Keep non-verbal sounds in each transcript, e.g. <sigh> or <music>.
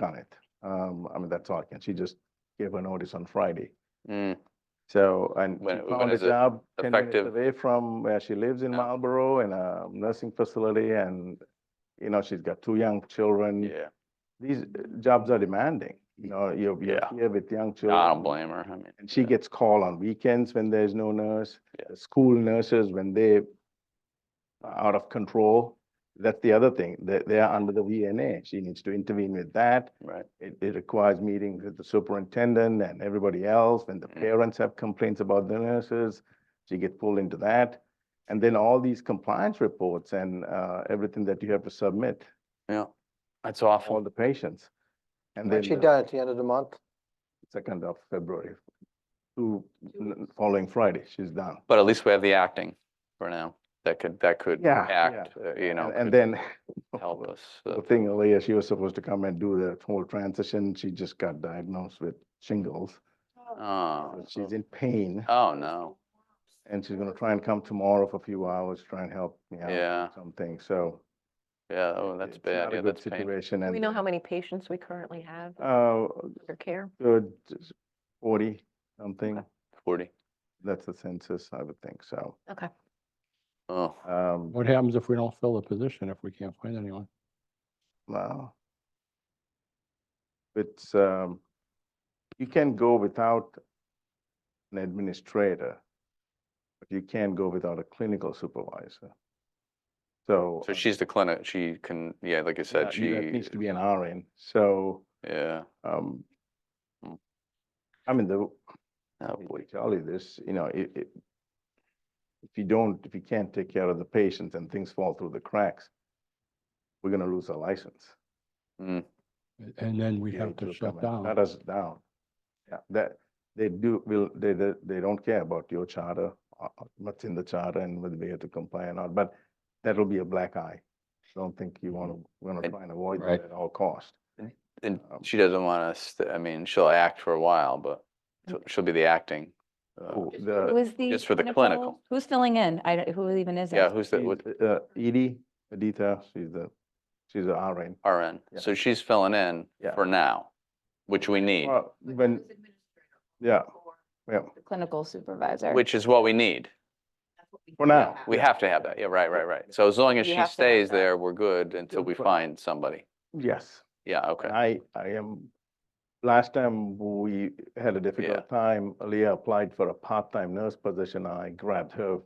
done it. Um, I mean, that's all I can, she just gave her notice on Friday. Mm, So, and When- she when found a is it job ten minutes effective? away from where she lives in Yeah. Marlboro in a nursing facility and, you know, she's got two young children. yeah, These uh, jobs are demanding, you know, you're, you're Yeah. here with young No, children. I don't blame her, I mean. And she yeah. gets called on weekends when there's no nurse. Yeah. the School nurses, when they are out of control, that's the other thing, they, they are under the VNA. She needs to intervene with that. Right, It, it requires meetings with the superintendent and everybody else. When the Mm. parents have complaints about the nurses, she gets pulled into that. And then all these compliance reports and, uh, everything that you have to submit, yeah, that's all awful. the patients. And then What's she the done at the end of the month? second of February, to, Mm. following Friday, she's done. But at least we have the acting for now, that could, that could Yeah, yeah. act, uh, you know, And- And could then help us. the uh, thing earlier, she was supposed to come and do the whole transition. She just got diagnosed with shingles. Oh, and She's in pain oh, no, and she's gonna try and come tomorrow for a few hours, try and help me out. yeah, with Something, so. yeah, oh, that's it's bad, not a yeah, good that's painful. Situation and. We know how many patients we currently have Uh, under care. good, forty something. Forty, That's the census, I would think, so. Okay. oh, Um, What happens if we don't fill the position, if we can't find anyone? Wow. It's, um, you can go without an administrator, but you can't go without a clinical supervisor. So. so uh, she's the clinic, she can, yeah, like I said, that- that she, Needs to be an RN, so, yeah, um, Mm. I mean, the, oh, I boy, would tell you this, you know, it, it, if you don't, if you can't take care of the patients and things fall through the cracks, we're gonna lose our license. mm, A- And then we be have able to come shut and down. Shut us down. Yeah, that, they do, will, they, they, they don't care about your charter, uh, uh, what's in the charter and whether we have to comply or not, but that'll be a black eye. I Don't think you wanna, wanna And- try and avoid Mm-hmm. Right. that at all cost. and Um, she doesn't want us, to- I mean, she'll act for a while, but Mm. she'll- she'll be the acting. uh, Oh, just- the- but- Who is the? just for the clinical. Who's filling in? I, don't- who even is it? Yeah, who's the, what- She's, Uh, Edie, Adita, she's the, she's a RN. RN, Yeah. so she's filling in Yeah. for now, which we need, Well, When, yeah, yeah, The Clinical supervisor. which is what we need. for now. We have to have that, yeah, right, right, right. So as long as We she have to have stays that. there, we're good until we Right. find somebody. Yes. Yeah, okay, I, I am, last time we had a difficult time, Leah applied for a part-time nurse position. I grabbed her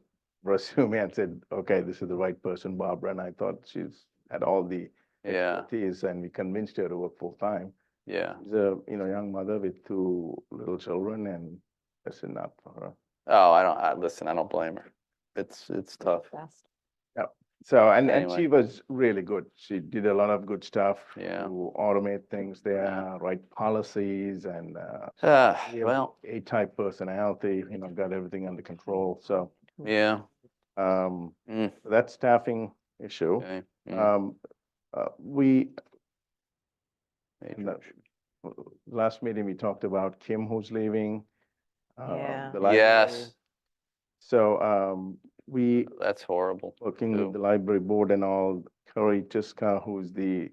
resume and said, okay, this is the right person, Barbara, and I thought she's had all the yeah, expertise, and we convinced her to work full-time. yeah. She's a, you know, young mother with two little children, and that's enough for her. Oh, I don't, I, listen, I don't blame her. It's, it's tough, <sighs> Best. So, and, and Anyway. she was really good. She did a lot of good stuff. yeah. To automate things there, Yeah. write policies, and, uh, Ah, Yeah, well, A-type personality, you know, got everything under control, so, yeah, um, Mm. that's staffing issue. okay. mm, Um, uh, we, major no. issue. last meeting, we talked about Kim who's leaving. um, Yeah. the library. Yes, So, um, we, that's horrible. working Who? with the library board and all, Curry Tiska, who's the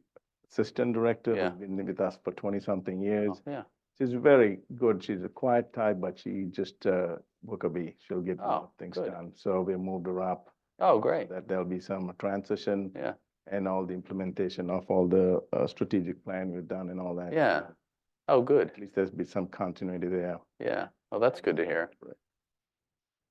assistant director, Yeah. who's been with us for twenty-something years. Oh, Yeah, She's very good. She's a quiet type, but she just, uh, work a bee. She'll get a lot Oh, of things good. done. So we moved her up. oh, so great, That there'll be some transition. Yeah. And all the implementation of all the, uh, strategic plan we've done and all that. Yeah. so oh, good, At least there's be some continuity there. yeah, well, that's good to hear.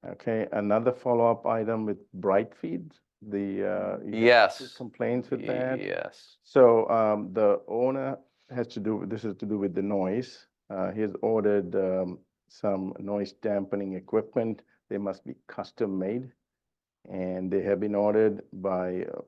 Okay, another follow-up item with Brightfield, the, uh. you had two Yes, Complaints with that. yes, So um, the owner has to do, this is to do with the noise. Uh, He has ordered um, some noise dampening equipment. They must be custom made. And they have been ordered by, uh,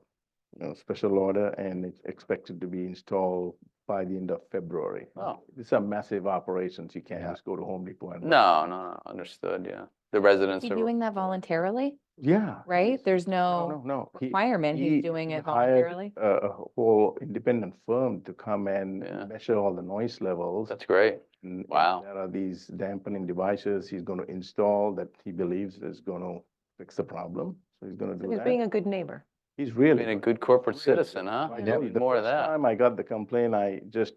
you know, special order and it's expected to be installed by the end of February. Oh. These are massive operations. You can't Yeah. just go to Home Depot and. no, no, no, understood, yeah. The residents Is he are. doing that voluntarily, Yeah. right? There's No, no no, no. He- requirement. he He's doing hired it voluntarily. A a whole independent firm to come and Yeah. measure all the noise levels. That's great. and- and Wow. There are these dampening devices he's going to install that he believes is going to fix the problem. So he's going to So do He's being that. a good neighbor. He's really. Being a good corporate really citizen, huh? I We tell you, need the More of first that. Time I got the complaint, I just